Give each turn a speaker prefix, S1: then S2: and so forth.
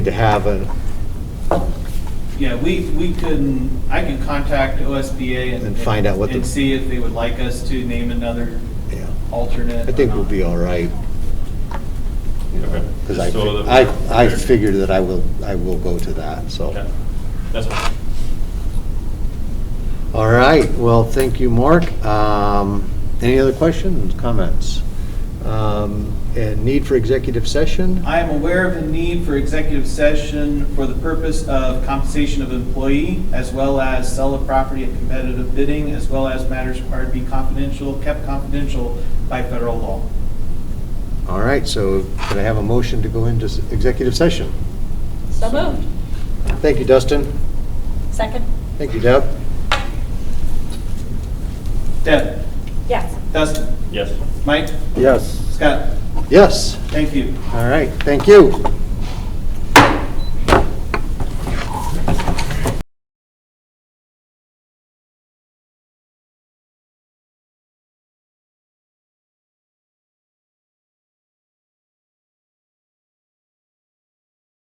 S1: to have a,
S2: Yeah, we, we can, I can contact OSBA and.
S1: And find out what the-
S2: And see if they would like us to name another
S1: yeah,
S2: alternate.
S1: I think we'll be all right.
S3: Okay.
S1: Because I,
S3: Just so that
S1: I,
S3: we're
S1: I
S3: prepared.
S1: figured that I will, I will go to that, so.
S3: Okay. That's fine.
S1: All right, well, thank you, Mark. Um, Any other questions, comments? Um, And need for executive session?
S2: I am aware of the need for executive session for the purpose of compensation of employee, as well as sell of property at competitive bidding, as well as matters required to be confidential, kept confidential by federal law.
S1: All right, so can I have a motion to go into s- executive session?
S4: So moved.
S1: Thank you, Dustin.
S4: Second?
S1: Thank you, Deb.
S2: Deb,
S4: Yes.
S2: Dustin,
S3: Yes.
S2: Mike,
S1: Yes.
S2: Scott,
S1: Yes,
S2: thank you.
S1: all right, thank you.